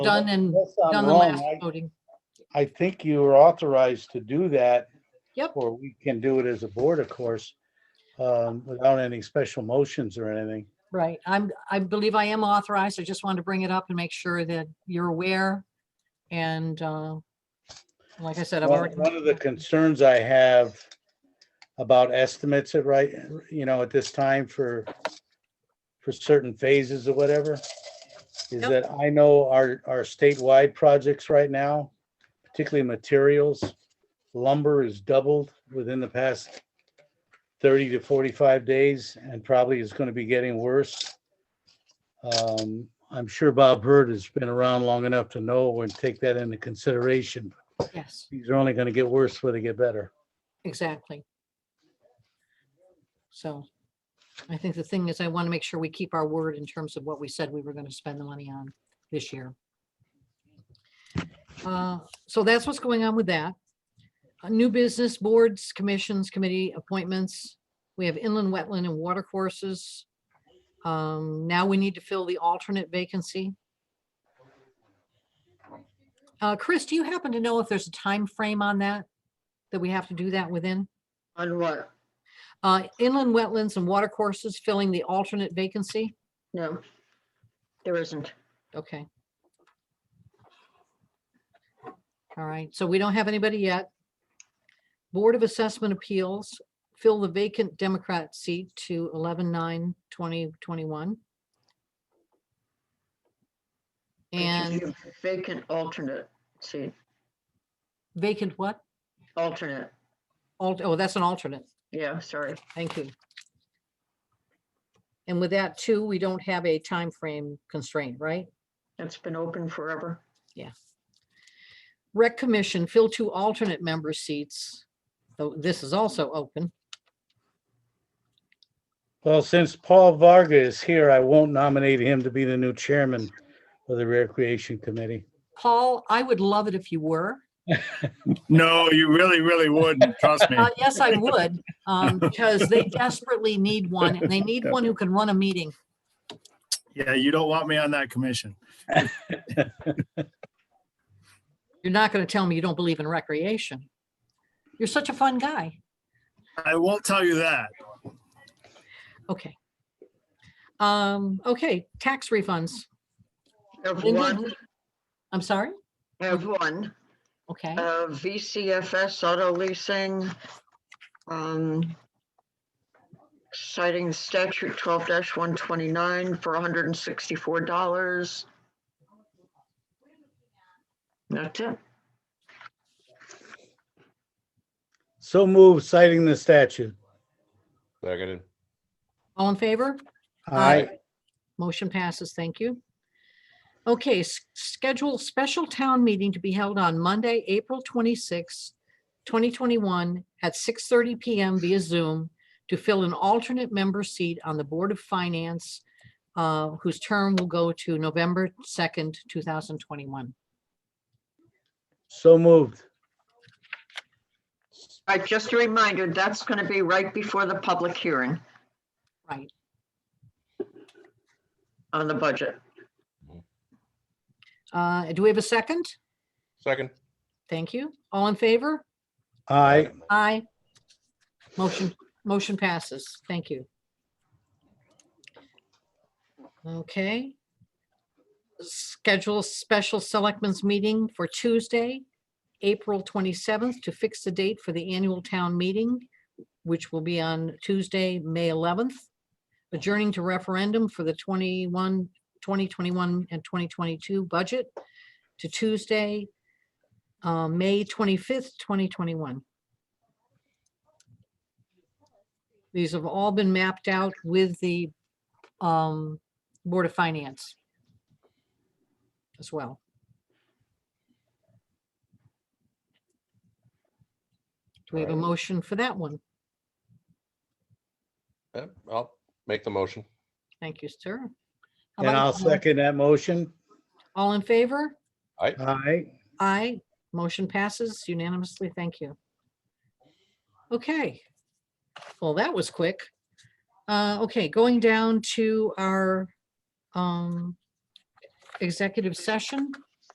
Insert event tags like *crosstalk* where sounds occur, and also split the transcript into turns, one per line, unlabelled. done and
Unless I'm
done the
wrong,
last
I-
voting.
I think you are authorized to do that.
Yep.
Or we can do it as a board, of course, um, without any special motions or anything.
Right. I'm, I believe I am authorized. I just wanted to bring it up and make sure that you're aware. And, uh, like I said, I've
One
already.
one of the concerns I have about estimates at right, you know, at this time for, for certain phases or whatever, is
Yep.
that I know our, our statewide projects right now, particularly materials, lumber is doubled within the past 30 to 45 days and probably is going to be getting worse. Um, I'm sure Bob Hurd has been around long enough to know and take that into consideration,
Yes,
these are only gonna get worse before they get better.
exactly. So I think the thing is I want to make sure we keep our word in terms of what we said we were going to spend the money on this year. Uh, So that's what's going on with that. Uh, New business boards, commissions, committee appointments. We have inland, wetland and water courses. Um, Now we need to fill the alternate vacancy. Uh, Chris, do you happen to know if there's a time frame on that? That we have to do that within?
On what?
Uh, Inland wetlands and water courses filling the alternate vacancy?
No, there isn't.
Okay. All right, so we don't have anybody yet. Board of Assessment Appeals, fill the vacant Democrat seat to 11/9/2021.
It's just
And
a Vacant alternate seat,
vacant what?
alternate.
Alt, oh, that's an alternate.
Yeah, sorry.
Thank you. And with that too, we don't have a time frame constraint, right?
It's been open forever.
Rec Commission, fill two alternate member seats. So this is also open.
Well, since Paul Varga is here, I won't nominate him to be the new chairman of the Recreation Committee.
Paul, I would love it if you were.
No, you really, really wouldn't.
*laughs*
Trust me.
Uh, Yes, I would, um, because they desperately need one, and they need one who can run a meeting.
Yeah, you don't want me on that commission.
You're not going to tell me you don't believe in recreation. You're such a fun guy.
I won't tell you that.
Okay. Um, Okay, tax refunds.
Have
England-
one,
I'm sorry?
have one,
Okay,
uh, VCFS auto leasing. um, Citing statute twelve one twenty-nine for hundred and sixty-four dollars. That's it.
So move citing the statute.
Seconded.
all in favor?
I,
Motion passes, thank you. Okay, s- schedule special town meeting to be held on Monday, April 26, 2021 at 6:30 PM via Zoom to fill an alternate member seat on the Board of Finance, uh, whose term will go to November 2nd, 2021.
so moved.
All right, just a reminder, that's gonna be right before the public hearing
Right.
on the budget.
Uh, Do we have a second?
Second.
Thank you. All in favor?
I,
Aye. Motion, motion passes. Thank you. Okay. Schedule a special selectmen's meeting for Tuesday, April 27th, to fix the date for the annual town meeting, which will be on Tuesday, May 11th, adjourning to referendum for the 21, 2021 and 2022 budget to Tuesday, uh, May 25th, 2021. These have all been mapped out with the um, Board of Finance as well. Do we have a
Alright.
motion for that one?
Yep, I'll make the motion.
Thank you, sir. How
and
about
I'll
all-
second that motion.
All in favor?
I,
Aye. Motion passes unanimously. Thank you. Okay. Well, that was quick. Uh, okay, going down to our um executive session.